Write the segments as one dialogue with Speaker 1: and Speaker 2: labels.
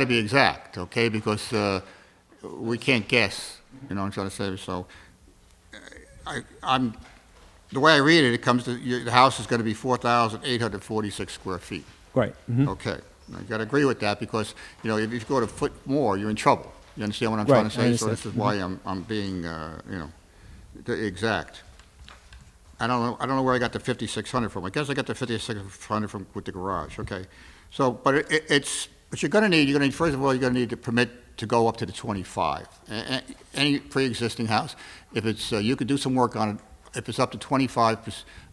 Speaker 1: to be exact, okay? Because uh, we can't guess, you know what I'm trying to say? So uh, I, I'm, the way I read it, it comes to, your- the house is going to be 4,846 square feet.
Speaker 2: Right.
Speaker 3: Mm-hmm.
Speaker 2: mhm.
Speaker 1: Okay, I gotta agree with that, because, you know, if you go to foot more, you're in trouble. You understand what I'm
Speaker 2: Right,
Speaker 1: trying to
Speaker 2: I
Speaker 1: say? So
Speaker 2: understand. Mm-hmm.
Speaker 1: this is why I'm, I'm being, uh, you know, the exact. I don't know, I don't know where I got the fifty-six hundred from. I guess I got the fifty-six hundred from, with the garage, okay? So, but it, it- it's, what you're gonna need, you're gonna need, first of all, you're gonna need the permit to go up to the twenty-five. A- a- Any pre-existing house, if it's, uh, you could do some work on it, if it's up to twenty-five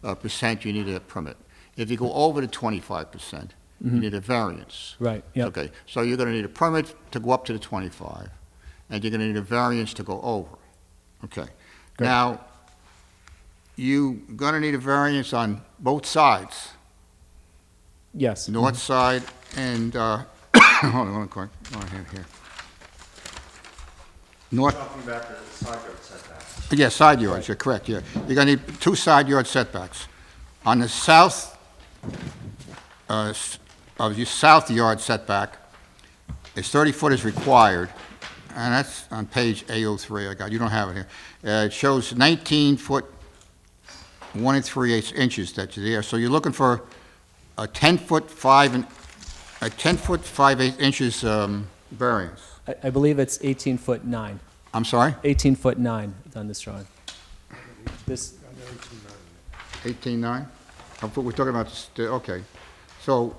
Speaker 1: uh, percent, you need a permit. If you go over the twenty-five percent, you need a variance.
Speaker 2: Mm-hmm. Right, yeah.
Speaker 1: Okay, so you're gonna need a permit to go up to the twenty-five, and you're gonna need a variance to go over, okay?
Speaker 2: Great.
Speaker 1: Now, you're going to need a variance on both sides,
Speaker 2: Yes.
Speaker 1: north side and, uh, hold on, hold on, Cory. Oh, I have it here. North,
Speaker 4: Talking about the side yard setback.
Speaker 1: yeah, side yards, you're correct, yeah. You're going to need two side yard setbacks. On the south, uh, s- of your south yard setback, is 30 foot is required, and that's on page A03, I got, you don't have it here. Uh, It shows 19 foot, 1 and 3 eighths inches that's there, so you're looking for a 10 foot 5 and, a 10 foot 5 eighths inches um, variance.
Speaker 2: I, I believe it's 18 foot 9,
Speaker 1: I'm sorry?
Speaker 2: 18 foot 9 on this drawing. This,
Speaker 1: 18.9? I'm- We're talking about, s- the- okay. So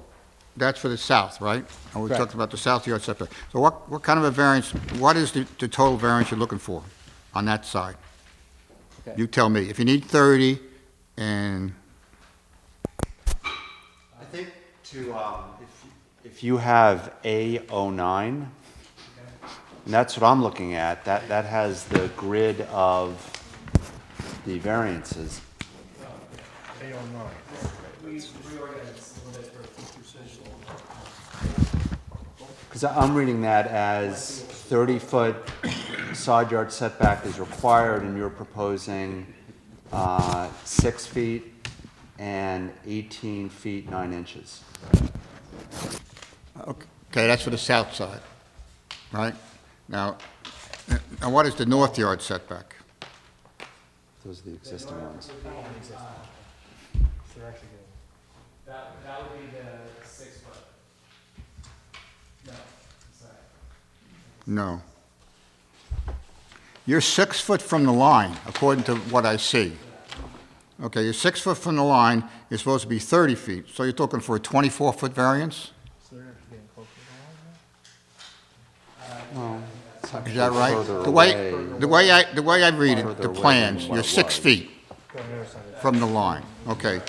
Speaker 1: that's for the south, right? And we
Speaker 2: Correct.
Speaker 1: talked about the south yard setback. So what, what kind of a variance, what is the, the total variance you're looking for on that side?
Speaker 2: Okay.
Speaker 1: You tell me. If you need 30 and,
Speaker 4: I think to, um, if, if you have A oh nine, and that's what I'm looking at, that, that has the grid of the variances. Because I'm reading that as thirty-foot side yard setback is required, and you're proposing, uh, six feet and eighteen feet nine inches.
Speaker 1: okay, that's for the south side, right? Now, uh, now what is the north yard setback?
Speaker 4: Those are the existing ones.
Speaker 3: That, that would be the six foot. No, sorry.
Speaker 1: No. You're six foot from the line, according to what I see. Okay, you're six foot from the line, you're supposed to be 30 feet, so you're talking for a 24-foot variance? Is that right? The way, the way I, the way I read it,
Speaker 4: Further
Speaker 1: the
Speaker 4: away than
Speaker 1: plans,
Speaker 4: what
Speaker 1: you're
Speaker 4: it
Speaker 1: six
Speaker 4: was.
Speaker 1: feet from the line, okay.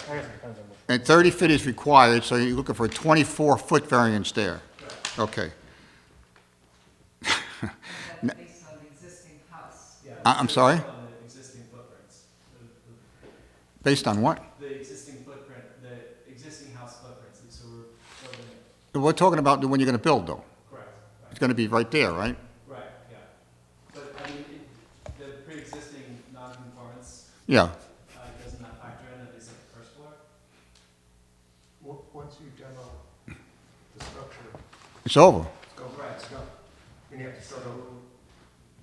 Speaker 1: And 30 feet is required, so you're looking for a 24-foot variance there. Okay.
Speaker 5: That's based on the existing house.
Speaker 1: I- I'm sorry?
Speaker 3: On the existing footprints, the,
Speaker 1: Based on what?
Speaker 3: the- the existing footprint, the existing house footprints, so we're building it.
Speaker 1: We're talking about when you're going to build, though.
Speaker 3: Correct, right,
Speaker 1: It's going to be right there, right?
Speaker 3: right, yeah. But I mean, it- the pre-existing non-conformance,
Speaker 1: Yeah.
Speaker 3: uh, does not factor in, at least at the first floor.
Speaker 6: Wo- Once you demo the structure,
Speaker 1: It's over.
Speaker 6: it's gone, it's gone. Then you have to start over.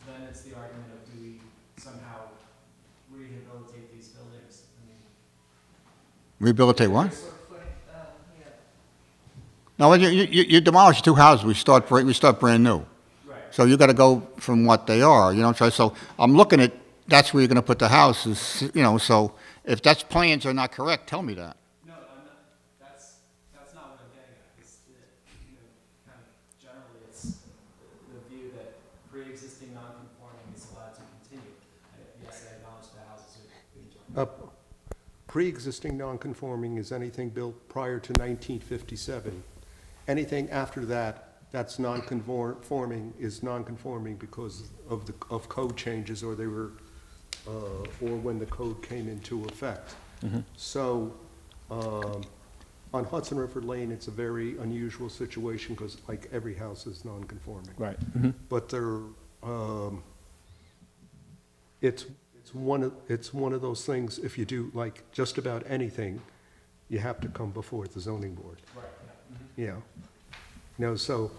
Speaker 3: Then it's the argument of do we somehow rehabilitate these buildings? I mean,
Speaker 1: Rehabilitate what?
Speaker 5: Square foot, um, yeah.
Speaker 1: No, you, you, you demolish two houses, we start, bra- we start brand new.
Speaker 3: right,
Speaker 1: So you got to go from what they are, you know what I'm saying? So I'm looking at, that's where you're going to put the houses, you know, so if that's plans are not correct, tell me that.
Speaker 3: No, I'm not, that's, that's not what I'm getting at, it's, the- you know, kind of generally, it's the view that pre-existing non-conforming is allowed to continue. I- Yes, I acknowledge the houses are being joined.
Speaker 6: Uh, Pre-existing non-conforming is anything built prior to 1957. Anything after that, that's non-conforming, is non-conforming because of the, of code changes, or they were, uh, or when the code came into effect. So, um, on Hudson River Lane, it's a very unusual situation, because like every house is non-conforming.
Speaker 2: right.
Speaker 6: but they're, um, it's, it's one of, it's one of those things, if you do like just about anything, you have to come before the zoning board. Right. Yeah. You know, so